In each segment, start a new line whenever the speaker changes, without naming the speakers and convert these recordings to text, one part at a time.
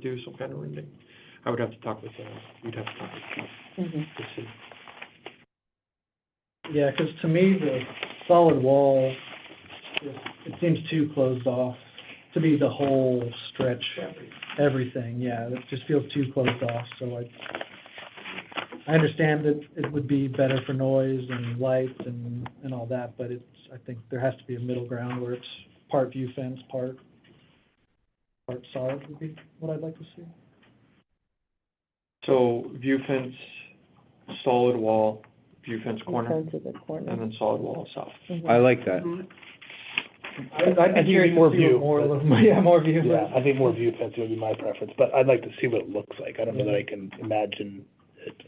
do some kind of rending. I would have to talk with, uh, you'd have to talk with Keith to see.
Yeah, 'cause to me, the solid wall, is- it seems too closed off to be the whole stretch, everything, yeah, it just feels too closed off, so I, I understand that it would be better for noise and lights and, and all that, but it's, I think there has to be a middle ground where it's part view fence, part, part solid would be what I'd like to see.
So view fence, solid wall, view fence corner,
Fence is a corner.
and then solid wall south.
Mhm.
I like that.
I- I'd be curious to see what
More,
more-
yeah, more view.
Yeah, I think more view fencing would be my preference, but I'd like to see what it looks like. I don't know that I can imagine it.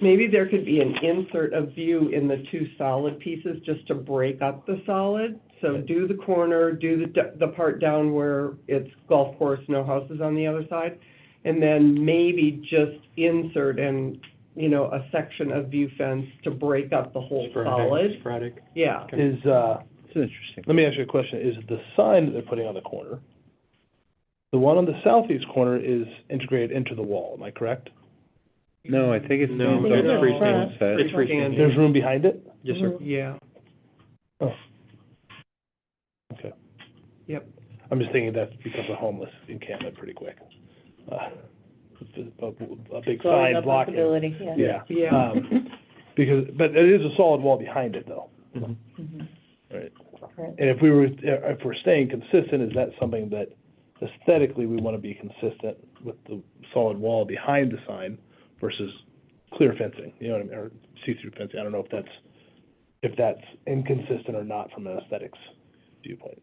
Maybe there could be an insert of view in the two solid pieces, just to break up the solid. So do the corner, do the, d- the part down where it's golf course, no houses on the other side. And then maybe just insert and, you know, a section of view fence to break up the whole
Sporadic,
solid.
sporadic.
Yeah,
Okay.
Is, uh,
It's interesting.
let me ask you a question. Is the sign that they're putting on the corner, the one on the southeast corner is integrated into the wall, am I correct?
No, I think it's.
No,
it's
it's
freestanding.
set.
It's freestanding.
There's room behind it?
Yes, sir.
yeah.
I'm just thinking that becomes a homeless encampment pretty quick. Uh, A a big
It's always
sign
a
blocking,
possibility, yeah.
yeah.
Yeah.
Um, Because, but it is a solid wall behind it, though.
Mhm.
Mhm.
Right.
Right.
And if we were, if we're staying consistent, is that something that aesthetically we want to be consistent with the solid wall behind the sign versus clear fencing, you know what I mean, or see-through fencing? I don't know if that's, if that's inconsistent or not from an aesthetics viewpoint.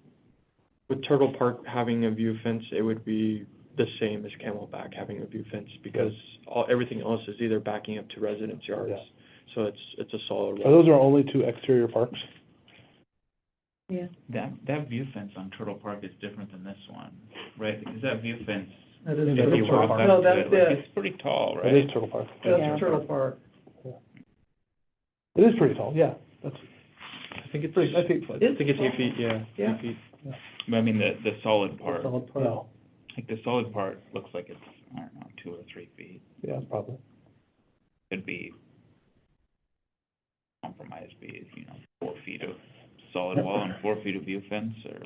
With Turtle Park having a view fence, it would be the same as Camelback having a view fence because all, everything else is either backing up to residence yards.
Yeah.
So it's, it's a solid
Are
wall.
those our only two exterior parks?
Yeah.
That, that view fence on Turtle Park is different than this one, right? Because that view fence,
That is
if
a
you
little
walk
far.
up
No,
to
that's
it, like,
it.
it's pretty tall,
It
right?
is Turtle Park.
Yeah.
That's Turtle Park.
It is pretty tall, yeah.
I think
It's pretty, I think,
I think it's eight feet, yeah. eight
Yeah.
feet.
But I mean, the, the solid part,
Solid part.
no,
like, the solid part looks like it's, I don't know, two or three feet,
yeah, probably.
could be compromised, be, you know, four feet of solid wall and four feet of view fence, or,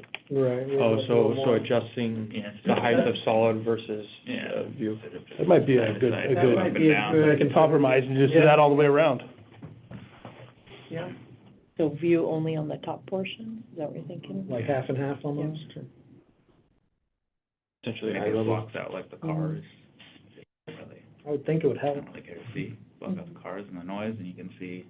Right. yeah,
Oh,
that's a
so,
little
so
more.
adjusting
yeah.
the height of solid versus
Yeah.
uh, view.
That might be a good- a good-
Up and down.
I can compromise and just do that all the way around.
Yeah.
So view only on the top portion, is that what you're thinking?
Like half and half almost, or?
Essentially,
Make
eye
it
level.
blocks out like the cars,
Mm-hmm.
really,
I would think it would
I
help.
don't really care to see, block out the cars and the noise, and you can see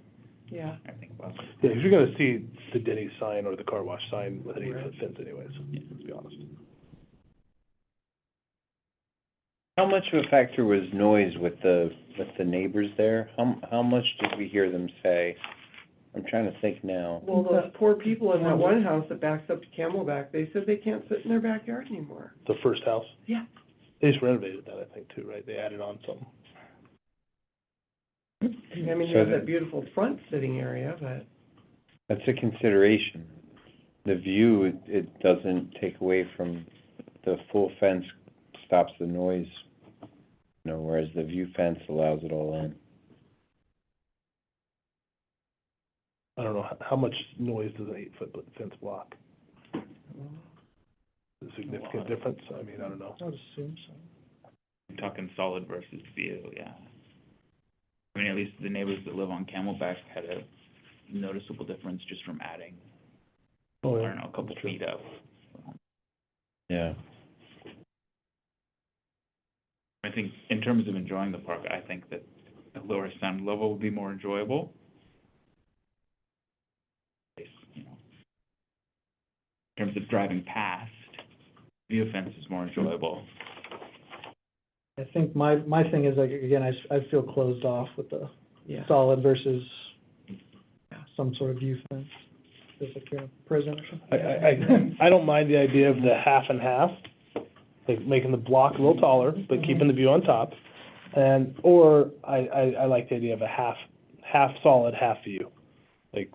Yeah.
everything about it.
Yeah, 'cause you're gonna see the Denny's sign or the car wash sign with an eight-foot fence anyways, let's be honest.
How much of a factor was noise with the, with the neighbors there? How, how much did we hear them say? I'm trying to think now.
Well, those poor people in that one house that backs up to Camelback, they said they can't sit in their backyard anymore.
The first house?
Yeah.
They just renovated that, I think, too, right? They added on something.
I mean,
So
there's
that-
that beautiful front sitting area, but.
That's a consideration. The view, it, it doesn't take away from, the full fence stops the noise, you know, whereas the view fence allows it all in.
I don't know, how, how much noise does an eight-foot bl- fence block? A Significant difference? I mean, I don't know.
I would assume so.
I'm talking solid versus view, yeah. I mean, at least the neighbors that live on Camelback had a noticeable difference just from adding, I
Oh, yeah.
don't know, a couple
That's true.
feet up.
Yeah.
I think in terms of enjoying the park, I think that a lower sound level would be more enjoyable. You know, In terms of driving past, view fence is more
Mm-hmm.
enjoyable.
I think my, my thing is like, again, I, s- I feel closed off with the
Yeah.
solid versus some sort of view fence. Just like you're in a prison or something.
I, I, I- I don't mind the idea of the half and half, like making the block a little taller, but keeping the view on top. And, or I, I, I like the idea of a half, half solid, half view, like,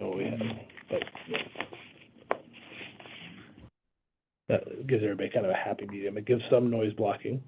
oh, we have, but. That gives everybody kind of a happy medium. It gives some noise blocking,